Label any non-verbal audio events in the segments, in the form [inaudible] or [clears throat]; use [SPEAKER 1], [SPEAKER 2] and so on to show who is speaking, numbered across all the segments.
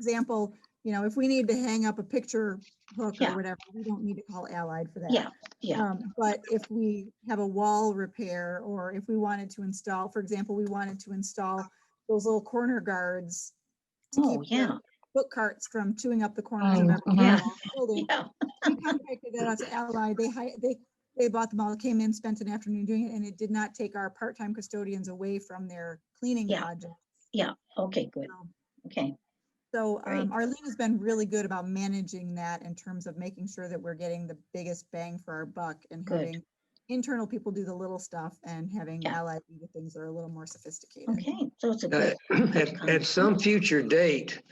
[SPEAKER 1] example, you know, if we need to hang up a picture hook or
[SPEAKER 2] Yeah.
[SPEAKER 1] whatever, we don't need to call Allied for that.
[SPEAKER 2] Yeah, yeah.
[SPEAKER 1] Um, But if we have a wall repair, or if we wanted to install, for example, we wanted to install those little corner guards to
[SPEAKER 2] Oh,
[SPEAKER 1] keep
[SPEAKER 2] yeah,
[SPEAKER 1] the book carts from chewing up the corners of
[SPEAKER 3] Oh,
[SPEAKER 1] every
[SPEAKER 3] uh-huh.
[SPEAKER 1] wall in the building,
[SPEAKER 2] yeah.
[SPEAKER 1] we contracted that out to Allied. They hi, they, they bought them all, came in, spent an afternoon doing it, and it did not take our part-time custodians away from their cleaning
[SPEAKER 2] Yeah.
[SPEAKER 1] project.
[SPEAKER 2] Okay, good.
[SPEAKER 1] so.
[SPEAKER 2] Okay,
[SPEAKER 1] So
[SPEAKER 2] Great.
[SPEAKER 1] um, Arlene has been really good about managing that in terms of making sure that we're getting the biggest bang for our buck and
[SPEAKER 2] Good.
[SPEAKER 1] having internal people do the little stuff and having
[SPEAKER 2] Yeah.
[SPEAKER 1] allied do the things that are a little more sophisticated.
[SPEAKER 2] okay. So it's a
[SPEAKER 4] Uh,
[SPEAKER 5] [clears throat]
[SPEAKER 2] good,
[SPEAKER 4] At, at some future date,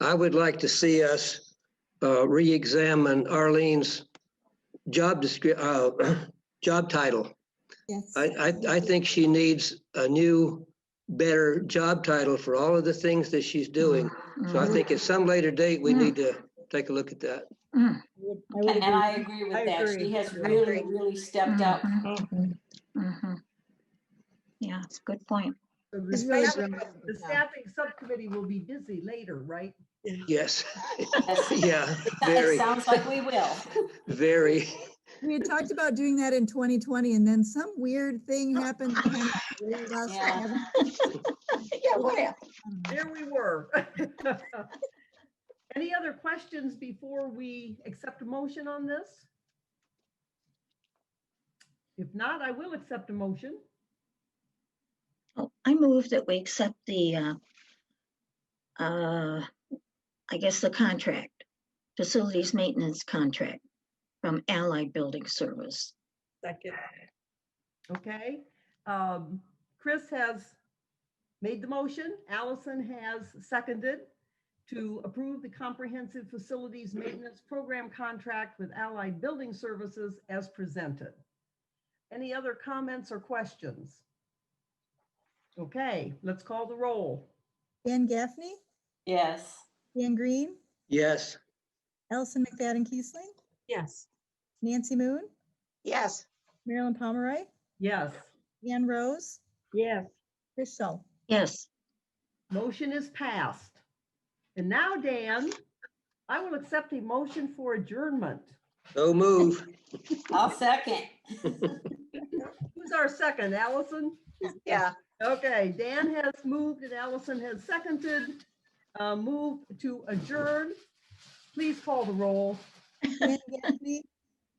[SPEAKER 4] I would like to see us uh, re-examine Arlene's job descri, uh, [clears throat] job title.
[SPEAKER 1] Yes.
[SPEAKER 4] I, I, I think she needs a new, better job title for all of the things that she's doing. So I
[SPEAKER 5] Mm-hmm.
[SPEAKER 2] Mhm.
[SPEAKER 4] think at some later date, we
[SPEAKER 2] Mm.
[SPEAKER 4] need to take a look at that.
[SPEAKER 1] would- I would
[SPEAKER 5] And and
[SPEAKER 1] agree.
[SPEAKER 5] I agree
[SPEAKER 1] I
[SPEAKER 5] with that.
[SPEAKER 1] agree.
[SPEAKER 5] She has
[SPEAKER 1] I
[SPEAKER 5] really,
[SPEAKER 1] agree. Mm.
[SPEAKER 5] really stepped up.
[SPEAKER 2] Mhm,
[SPEAKER 3] Mhm.
[SPEAKER 2] mhm. Yeah, it's a good point.
[SPEAKER 1] It's
[SPEAKER 6] The
[SPEAKER 1] really
[SPEAKER 6] staffing-
[SPEAKER 1] relevant,
[SPEAKER 6] the
[SPEAKER 1] yeah.
[SPEAKER 6] staffing subcommittee will be busy later, right?
[SPEAKER 4] Yes,
[SPEAKER 5] Yes.
[SPEAKER 4] [laughs] yeah,
[SPEAKER 5] It
[SPEAKER 4] very,
[SPEAKER 5] sounds like we will.
[SPEAKER 4] very.
[SPEAKER 1] We had talked about doing that in 2020 and then some weird thing happened. that kind of derailed us. I
[SPEAKER 5] Yeah.
[SPEAKER 1] haven't-
[SPEAKER 2] Yeah, what happened?
[SPEAKER 1] I don't know.
[SPEAKER 6] There we were. [laughs] Any other questions before we accept a motion on this? If not, I will accept a motion.
[SPEAKER 2] Oh, I move that we accept the, uh, uh, I guess the contract, facilities maintenance contract from Allied Building Service.
[SPEAKER 6] Okay, um, Chris has made the motion, Allison has seconded to approve the comprehensive facilities maintenance program contract with Allied Building Services as presented. Any other comments or questions? Okay, let's call the roll.
[SPEAKER 1] Dan Gaffney,
[SPEAKER 5] Yes.
[SPEAKER 1] Dan Green,
[SPEAKER 4] Yes,
[SPEAKER 1] Allison McFadden Keesling,
[SPEAKER 7] Yes.
[SPEAKER 1] Nancy Moon,
[SPEAKER 7] Yes.
[SPEAKER 1] Marilyn Pomeroy,
[SPEAKER 6] Yes.
[SPEAKER 1] Ann Rose,
[SPEAKER 6] Yes.
[SPEAKER 1] Chris Schell.
[SPEAKER 2] Yes,
[SPEAKER 6] Motion is passed. And now, Dan, I will accept a motion for adjournment.
[SPEAKER 4] no move.
[SPEAKER 5] I'll second.
[SPEAKER 6] Who's our second, Allison?
[SPEAKER 7] Yeah.
[SPEAKER 6] Okay, Dan has moved and Allison has seconded. uh, Move to adjourn. Please call the roll.
[SPEAKER 1] Dan Gaffney,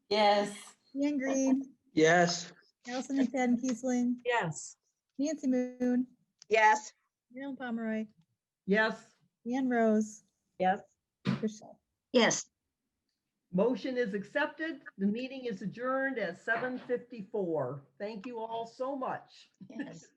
[SPEAKER 5] Yes.
[SPEAKER 1] Dan Green,
[SPEAKER 4] Yes.
[SPEAKER 1] Allison McFadden Keesling,
[SPEAKER 7] Yes.
[SPEAKER 1] Nancy Moon,
[SPEAKER 7] Yes.
[SPEAKER 1] Marilyn Pomeroy,
[SPEAKER 6] Yes,
[SPEAKER 1] Ann Rose,
[SPEAKER 7] Yes.
[SPEAKER 1] Chris Schell.
[SPEAKER 2] yes.
[SPEAKER 6] motion is accepted. The meeting is adjourned at 7:54. Thank you all so much.
[SPEAKER 2] Yes.